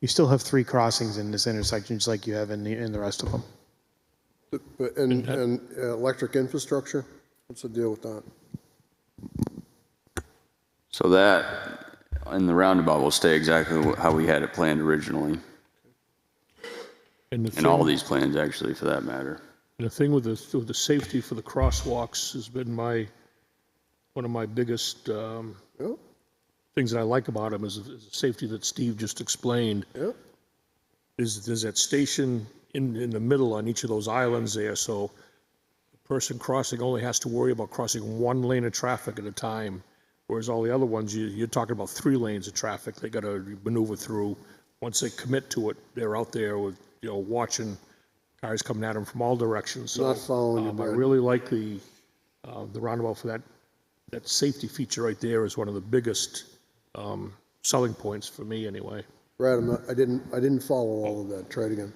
You still have three crossings in this intersection, just like you have in the, in the rest of them. But- And, and uh, electric infrastructure, what's the deal with that? So that, in the roundabout, will stay exactly wh- how we had it planned originally, And the and all thing- these plans, actually, for that matter. And the thing with the, with the safety for the crosswalks has been my, one of my biggest um, Yeah, things that I like about them is is the safety that Steve just explained. yeah, There's, there's that station in, in the middle on each of those islands there, so the person crossing only has to worry about crossing one lane of traffic at a time, whereas all the other ones, you, you're talking about three lanes of traffic they gotta maneuver through. Once they commit to it, they're out there with, you know, watching cars coming at them from all directions, so. Not following you, um, I Brad. really like the, uh, the roundabout for that, that safety feature right there is one of the biggest, um, selling points for me anyway. Brad, I'm not, I didn't, I didn't follow all of that, try it again,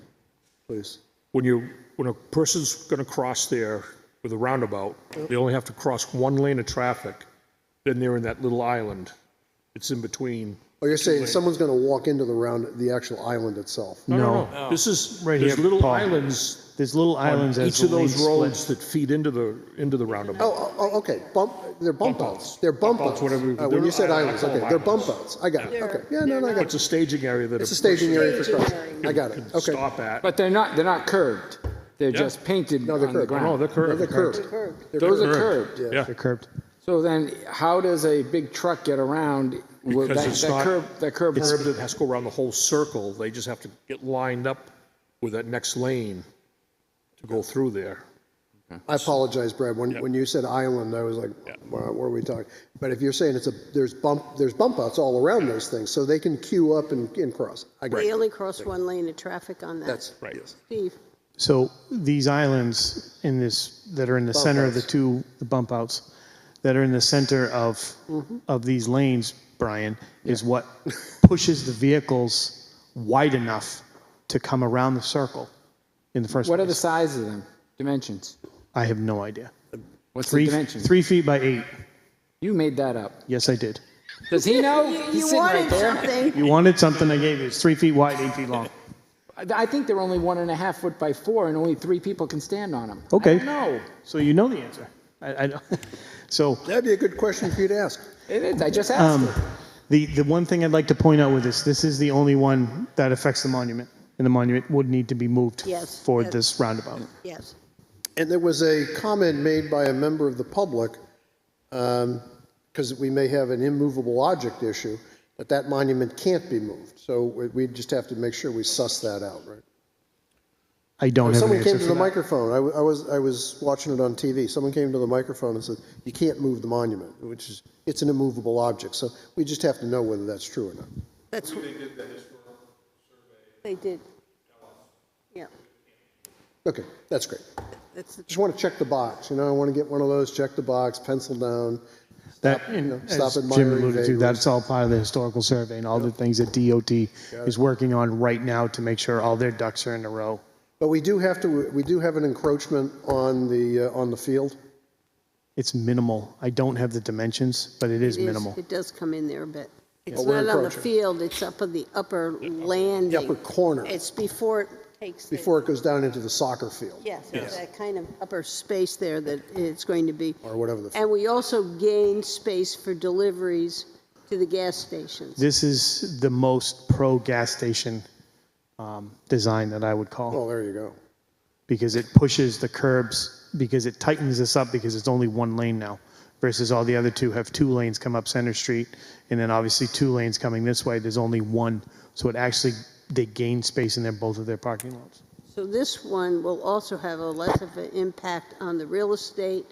please. when you, when a person's gonna cross there with a roundabout, they only have to cross one lane of traffic, then they're in that little island. It's in between. Oh, you're saying someone's gonna walk into the round, the actual island itself? No, no, no. This is, Right there's here, little Paul. islands There's little on islands as each the of lane those splits. roads that feed into the, into the roundabout. Oh, oh, oh, okay, bump, they're bump Bump outs, outs. they're bump Bump outs. outs, whatever you- Uh, When you said they're- I- I islands, call okay, them they're islands. bump outs, I got it, okay, yeah, no, no, I got It's it. a staging area that. It's a staging area for Staging crossing, I got it, okay. Stop at. But they're not, they're not curved. They're just painted No, on they're the curved. No, ground. they're No, They're curved. curved, Those are curved. Yeah. They're curved. So then how does a big truck get around with Because that it's that not- curb, that curb? It's curved, it has to go around the whole circle. They just have to get lined up with that next lane to go through there. I apologize, Brad, when, when you said island, I was like, "Wow, what are we talking? But if you're saying it's a, there's bump, there's bump outs all around those things, so they can queue up and, and cross, I got They it, only cross one lane of traffic on that. that's. Right. Steve, So these islands in this, that are in the center of the outs. two, the bump outs, that are in the center of, of these lanes, Brian, is what pushes the vehicles wide enough to come around the circle in the first What are the place. size of them? Dimensions? I have no idea. What's the Three, dimensions? three feet by eight. You made that up. Yes, I did. Does he know? you He's you sitting right wanted there. something. You wanted something, I gave you. It's three feet wide, eight feet long. I I think they're only one and a half foot by four, and only three people can stand on them. Okay. No, So you know the answer. I, I don't. So That'd be a good question for you to ask. it is. I just Um, asked. him. the the one thing I'd like to point out with this, this is the only one that affects the monument, and the monument would need to be moved Yes, for yes. this roundabout. Yes. And there was a comment made by a member of the public, because we may have an immovable object issue, that that monument can't be moved. So we we just have to make sure we suss that out, right? I don't have an Someone answer came to for the that. microphone, I w- I was, I was watching it on TV, someone came to the microphone and said, you can't move the monument, which is, it's an immovable object, so we just have to know whether that's true or not. That's. They did the They did. Yeah, Okay, that's great. that's the Just want to check the box, you know, I want to get one of those, check the box, pencil down. That, know, and stop as Jim admiring alluded to, vagrants. that's all part of the historical survey and all the things that DOT is working on right now to make sure all their ducks are in a row. But we do have to, we do have an encroachment on the, uh, on the field. It's minimal. I don't have the dimensions, but it is It is- minimal. It does come in there a bit. It's But we're not on the encroaching. field, it's up on the upper landing. upper corner. It's before it takes. the- before it goes down into the soccer field. Yes, it's that kind of upper space there that it's going to be. Or whatever the- And we also gain space for deliveries to the gas stations. This is the most pro gas station um, design that I would call Oh, there you go. because it pushes the curbs, because it tightens this up because it's only one lane now versus all the other two have two lanes come up Center Street and then obviously two lanes coming this way. There's only one. So it actually, they gain space in their, both of their parking lots. So this one will also have a less of an impact on the real estate,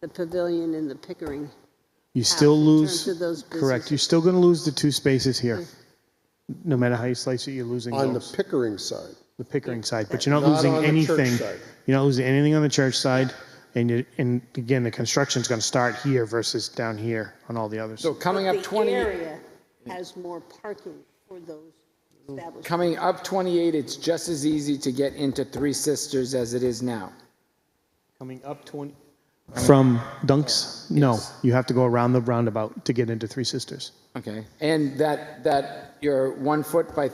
the pavilion, and the Pickering. You still in lose, terms of those correct, businesses. you're still going to lose the two spaces here. No matter how you slice it, you're losing On the those, Pickering side. the Pickering side, but you're not Not losing on the church anything. side. You're not losing anything on the church side. And you, and again, the construction's going to start here versus down here on all the others. So coming But up 20, The area has more parking for those establishments. coming up 28, it's just as easy to get into Three Sisters as it is now. Coming up 20. From Dunks? No, you have to go around the roundabout to get into Three Sisters. Okay. And that that your one foot by